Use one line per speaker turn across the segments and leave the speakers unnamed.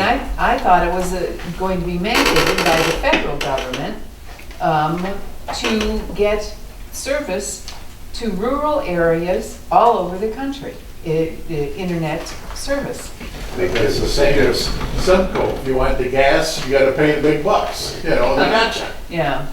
I, I thought it was uh, going to be mandated by the federal government um, to get service to rural areas all over the country, i- the internet service.
It's the same as Sunco, if you want the gas, you gotta pay the big bucks, you know, they gotcha,
Yeah,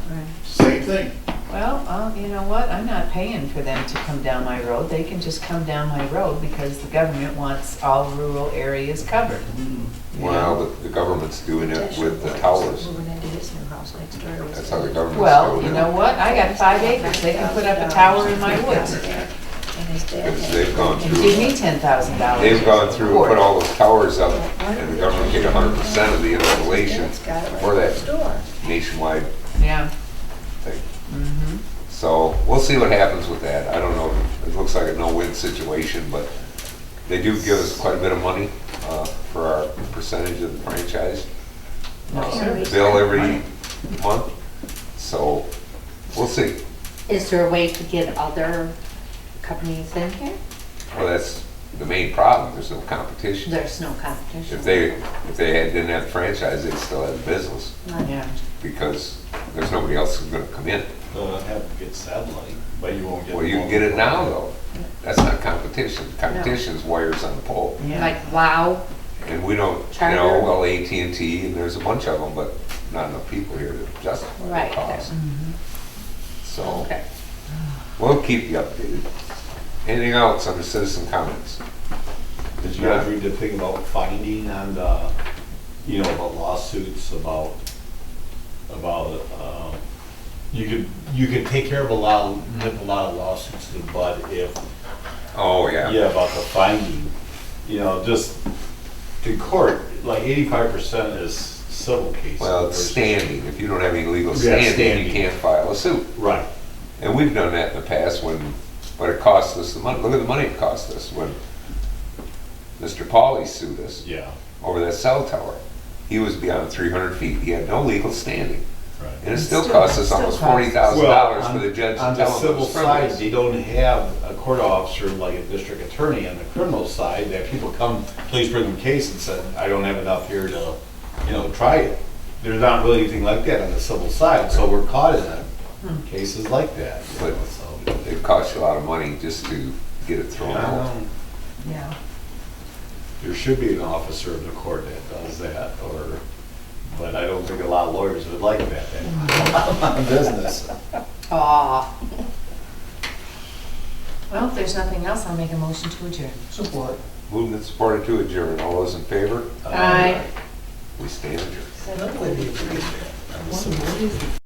same thing.
well, uh, you know what, I'm not paying for them to come down my road, they can just come down my road because the government wants all rural areas covered.
Hmm.
you know?
Well, the- the government's doing it with the towers.
Moving into his new house next door.
That's how the government's doing it.
Well, you know what, I got five acres, they can put up a tower in my woods.
And his dad
Because
had.
they've gone
And give me
through,
ten thousand dollars.
they've gone through and put all those towers up, and the government get hundred percent of the installation
Dad's got it right
for
next
that
door.
nationwide
Yeah,
thing.
Mm-hmm.
So, we'll see what happens with that. I don't know, it looks like a no-win situation, but they do give us quite a bit of money, uh, for our percentage of the franchise.
No,
uh,
sure.
Bill every month, so, we'll see.
Is there a way to get other companies in here?
Well, that's the main problem, there's no competition.
There's no competition.
If they, if they had- didn't have the franchise, they'd still have the business,
Right.
yeah.
because there's nobody else who's gonna come in.
They'll have to get satellite, but you won't get.
Well, you can get it now, though. That's not competition. Competition's wires on the pole.
Yeah.
Like wow,
And we don't, you know,
Charter.
well, AT&T, and there's a bunch of them, but not enough people here to justify
Right. Mm-hmm.
the cost. So,
okay.
we'll keep you updated. Anything else under citizen comments?
Did you guys read the thing about finding on the, you know, about lawsuits about, about, um, you could, you could take care of a lot, nip a lot of lawsuits in the bud if
Oh, yeah.
Yeah, about the finding, you know, just in court, like eighty-five percent is civil cases.
Well, it's
versus-
standing. If you don't have any legal
Yeah,
standing, you
standing.
can't file a suit.
Right,
And we've done that in the past when, but it cost us the money, look at the money it cost us when Mr. Pauley sued us
yeah,
over that cell tower. He was beyond three hundred feet, he had no legal standing,
right.
and it still
Still-
cost us
still
almost
cost us.
forty thousand dollars for the judge
On
to
the
tell him it
civil
was
side,
frivolous.
they don't have a court officer like a district attorney. On the criminal side, that people come, please bring them case and said, I don't have enough here to, you know, try it. There's not really anything like that on the civil side, so we're caught in uh, cases like that. you know,
But-
so.
It cost you a lot of money just to get it thrown
Yeah, I
out.
know.
Yeah.
There should be an officer of the court that does that, or, but I don't think a lot of lawyers would like that. that Business.
Aw,
Well, if there's nothing else, I'll make a motion to adjourn. Support.
Moved and supported to adjourn, all those in favor,
Aye.
we stand adjourned.
What is